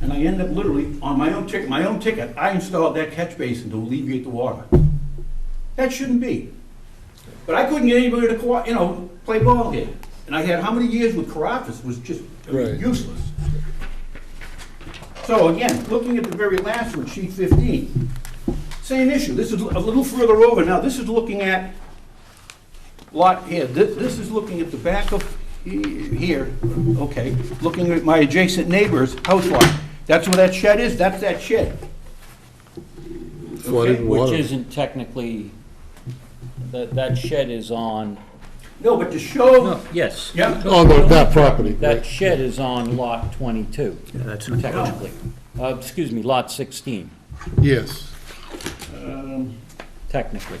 And I ended up literally, on my own ticket, my own ticket, I installed that catch basin to alleviate the water. That shouldn't be. But I couldn't get anybody to, co- you know, play ball here. And I had how many years with Carafas was just I mean, Right. useless. So again, looking at the very last one, sheet 15, same issue. This is a little further over. Now, this is looking at lot here, this, this is looking at the back of he- here, okay, looking at my adjacent neighbor's house lot. That's where that shed is, that's that shed. flooded Okay, water. Which isn't technically, that, that shed is on, No, but to show, no, yes. yeah, On the- Oh, that property, That right. shed is on lot 22, That's technically. Uh, Excuse me, lot 16, yes. technically.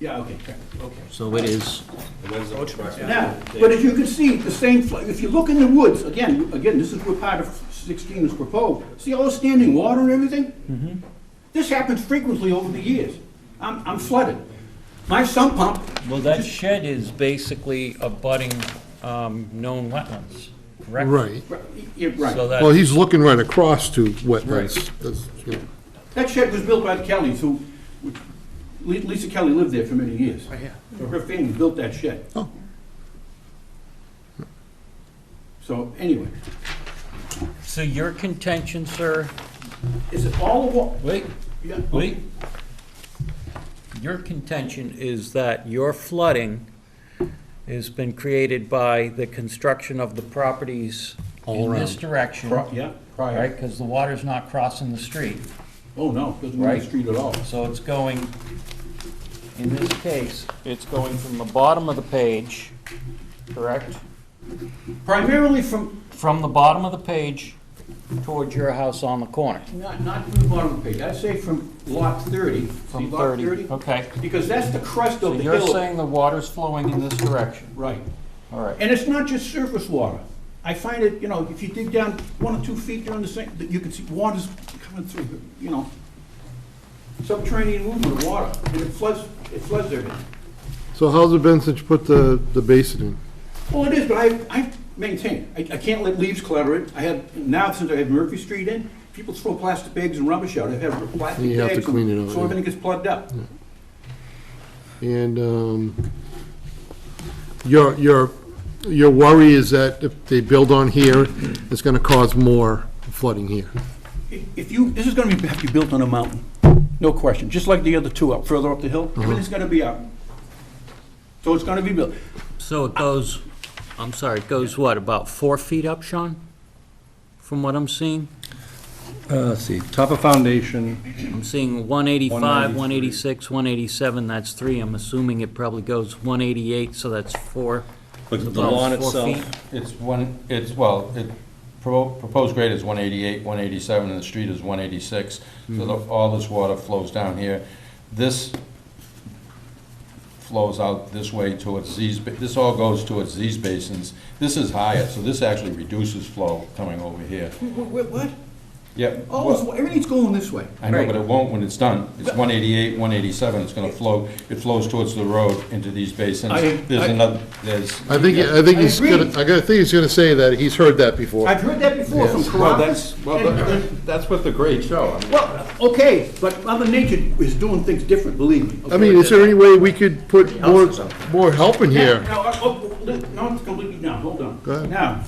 yeah, okay, okay. So it is, Now, but as you can see, the same, fl- if you look in the woods, again, again, this is where part of 16 is proposed, see all the standing water and everything? Mm-hmm. This happens frequently over the years. I'm I'm flooded. My sump pump Well, that shed is basically abutting um, known wetlands, correct? Right. Right, yeah, So Right. Well, that, he's looking right across to wetlands. That's, you know, That shed was built by the Kellys, who, Le- Lisa Kelly lived there for many years. So her family built that shed. Oh. So anyway, so your contention, sir, is it all the wa, wait, yeah, oh, wait. Your contention is that your flooding has been created by the construction of the properties All in this around. direction, pri- yeah, right? prior. Because the water's not crossing the street. Oh, no, doesn't go on Right. the street at all. So it's going, in this case, it's going from the bottom of the page, correct? Primarily from, From the bottom of the page towards your house on the corner. not, not from the bottom of the page, I'd say from lot thirty. See From lot 30, okay. Because that's the crust So of the you're hill. saying the water's flowing in this direction? Right. All right. And it's not just surface water. I find it, you know, if you dig down one or two feet down the sink, that you can see water's coming through, you know. Subterranean movement of water, and it floods, it floods everything. So how's it been since you put the, the basin in? Well, it is, but I, I maintain, I, I can't let leaves clutter it. I have, now since I have Murphy Street in, people throw plastic bags and rubbish out. I have plastic You have to bags, clean it and out, so yeah. everything gets plugged up. And um, your, your, your worry is that if they build on here, it's going to cause more flooding here. If- If you, this is gonna be, have to be built on a mountain, no question, just like the other two up, further up the hill, Uh-huh. everything's gonna be up. So it's gonna be built. So it goes, I'm sorry, it goes what, about four feet up, Sean? From what I'm seeing? uh, let's see, top of foundation, I'm seeing 185, 193. 186, 187, that's three. I'm assuming it probably goes 188, so that's four. But It's the about lawn four itself, feet. It's one, it's, well, it, pro- proposed grade is 188, 187, and the street is 186, so the- all this water flows down here. This flows out this way towards these, ba- this all goes towards these basins. This is higher, so this actually reduces flow coming over here. What, what? Yeah, Oh, it's- well, everything's going this way. I know, but it won't when it's done. It's 188, 187, it's gonna flow, it flows towards the road into these basins. I- I- There's another, there's. I think, uh, I think I he's agree. gonna, I gotta- I think he's gonna say that he's heard that before. I've heard that before from well, Caracas. that's, well, that- that's what the grades show. I mean, Well, okay, but Mother Nature is doing things different, believe me. I mean, is there any way we could put more, more help in Yeah, here? No, uh, oh, li- no, it's completely down, hold on. Go ahead. Now,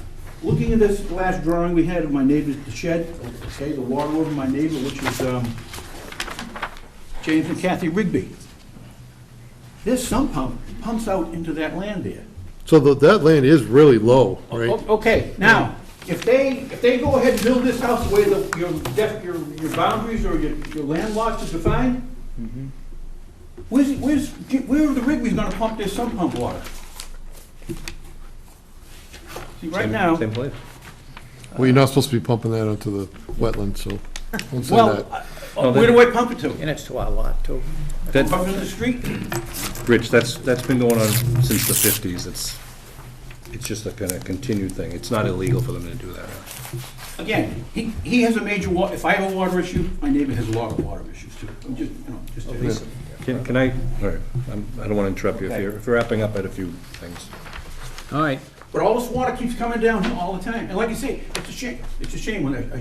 looking at this last drawing we had of my neighbor's shed, okay, the water over my neighbor, which is, um, James and Kathy Rigby. This sump pump pumps out into that land there. So tha- that land is really low, right? O- Okay, Mm-hmm. now, if they, if they go ahead and build this house the way the, your def, your, your boundaries or your, your land lots is defined, Mm-hmm. where's, where's, where are the Rigby's gonna pump their sump pump water? See, right same- now, uh, Same place. Well, you're not supposed to be pumping that onto the wetland, so don't say well, that. uh, uh, where do I pump it to? and it's to our lot, too. Oh, That, Pump it in the street? Rich, that's, that's been going on since the 50s. It's, it's just a kind of continued thing. It's not illegal for them to do that. Again, he, he has a major wa, if I have a water issue, my neighbor has a lot of water issues too. I'm just, you know, Oh, just. Can can I, all right, I'm- I don't want to interrupt you. If you're, if you're wrapping up at a few things. All right. But all this water keeps coming down all the time, and like you say, it's a shame, it's a shame when I, I